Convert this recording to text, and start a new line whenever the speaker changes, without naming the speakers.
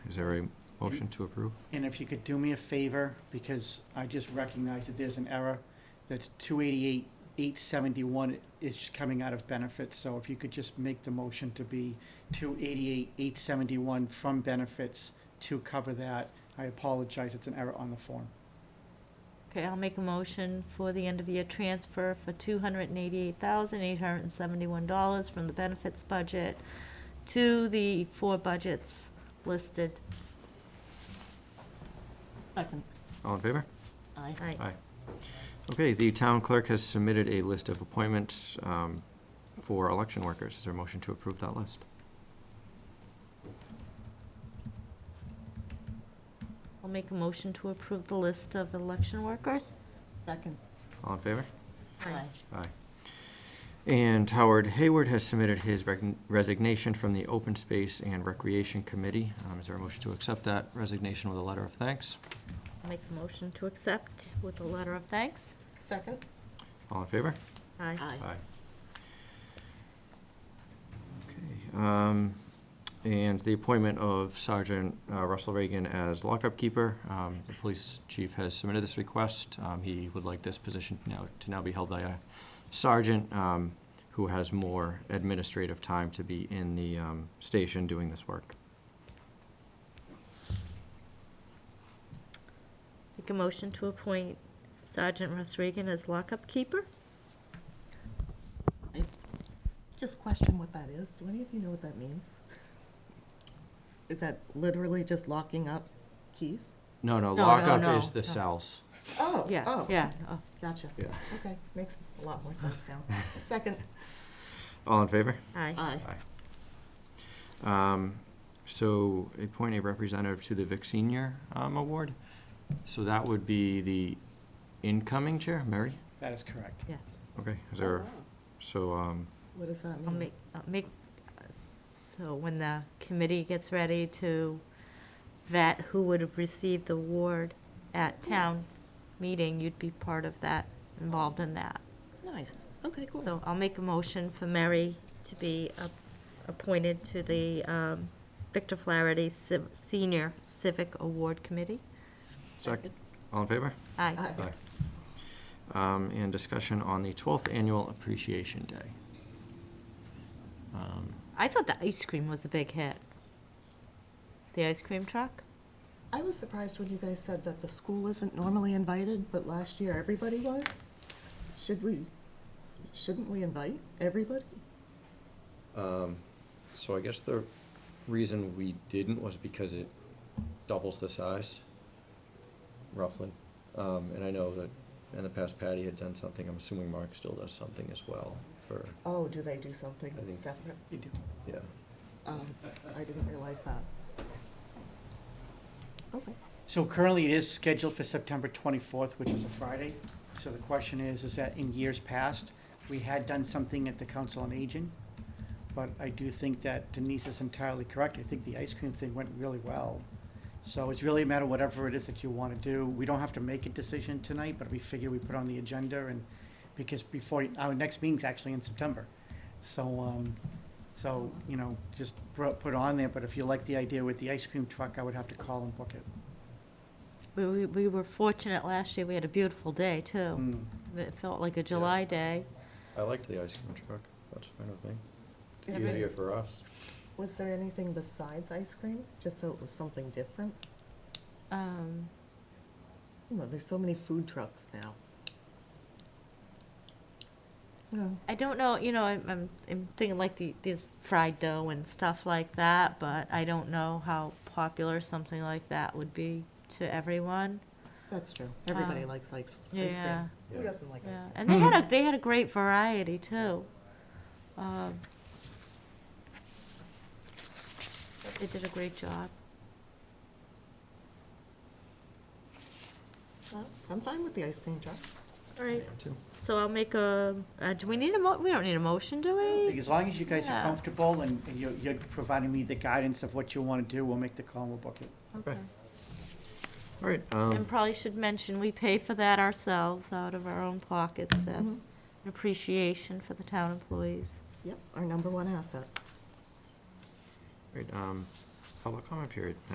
Is there a motion to approve?
And if you could do me a favor, because I just recognize that there's an error, that two eighty-eight, eight seventy-one is coming out of benefits, so if you could just make the motion to be two eighty-eight, eight seventy-one from benefits to cover that, I apologize, it's an error on the form.
Okay, I'll make a motion for the end of year transfer for two hundred and eighty-eight thousand, eight hundred and seventy-one dollars from the benefits budget to the four budgets listed.
Second.
All in favor?
Aye.
Aye.
Aye. Okay, the town clerk has submitted a list of appointments um, for election workers. Is there a motion to approve that list?
I'll make a motion to approve the list of election workers.
Second.
All in favor?
Aye.
Aye. And Howard Hayward has submitted his recogn- resignation from the Open Space and Recreation Committee. Um, Is there a motion to accept that resignation with a letter of thanks?
I'll make a motion to accept with a letter of thanks.
Second.
All in favor?
Aye.
Aye. Okay, um, and the appointment of Sergeant uh, Russell Reagan as lockup keeper. Um, the police chief has submitted this request. Um, he would like this position now, to now be held by a sergeant, um, who has more administrative time to be in the, um, station doing this work.
Make a motion to appoint Sergeant Russ Regan as lockup keeper.
I Just question what that is. Do any of you know what that means? Is that literally just locking up keys?
No, no,
No, no,
lockup
no,
is
no.
the cells.
Oh,
Yeah,
oh,
yeah. oh.
Gotcha.
Yeah.
Okay, makes a lot more sense now. Second.
All in favor?
Aye.
Aye.
Um, so appoint a representative to the Vic Senior um, Award. So that would be the incoming chair, Mary?
That is correct.
Yeah.
Okay, is
Oh,
there,
wow.
so, um,
What does that mean?
I'll make, I'll make, so when the committee gets ready to vet who would have received the award at town meeting, you'd be part of that, involved in that.
Nice. Okay, cool.
So I'll make a motion for Mary to be ap- appointed to the um, Victor Flaherty Civ- Senior Civic Award Committee.
second, all in favor?
Aye.
Aye.
Aye. Um, and discussion on the twelfth annual appreciation day. Um,
I thought the ice cream was a big hit. The ice cream truck?
I was surprised when you guys said that the school isn't normally invited, but last year everybody was. Should we, shouldn't we invite everybody?
Um, so I guess the reason we didn't was because it doubles the size, roughly. Um, and I know that in the past Patty had done something, I'm assuming Mark still does something as well for,
Oh, do they do something
I think-
separate?
You do.
yeah.
Um, I didn't realize that. Okay.
So currently, it is scheduled for September 24th, which is a Friday. So the question is, is that in years past, we had done something at the Council on Aging, but I do think that Denise is entirely correct. I think the ice cream thing went really well. So it's really a matter of whatever it is that you want to do. We don't have to make a decision tonight, but we figure we put on the agenda and, because before, our next meeting's actually in September. So, um, so, you know, just bro- put it on there, but if you like the idea with the ice cream truck, I would have to call and book it.
We, we- we were fortunate last year, we had a beautiful day, too.
Mm.
It felt like a July day.
I liked the ice cream truck, that's fine with me.
Is it-
Easier for us.
Was there anything besides ice cream, just so it was something different?
Um,
You know, there's so many food trucks now. Well,
I don't know, you know, I'm, I'm, I'm thinking like the, this fried dough and stuff like that, but I don't know how popular something like that would be to everyone.
that's true. Everybody
Um,
likes ice, ice
Yeah,
cream. Who
Yeah.
doesn't like ice
yeah.
cream?
And they had a, they had a great variety, too. Um, They did a great job.
Well, I'm fine with the ice cream truck.
All right,
Too.
so I'll make a, uh, do we need a mo, we don't need a motion, do
Like,
we?
As long as you guys are
Yeah.
comfortable and and you're, you're providing me the guidance of what you want to do, we'll make the call and we'll book it.
Okay. All right, um,
And probably should mention, we pay for that ourselves out of our own pockets as
Mhm.
an appreciation for the town employees.
Yep, our number one asset.
great, um, public comment period.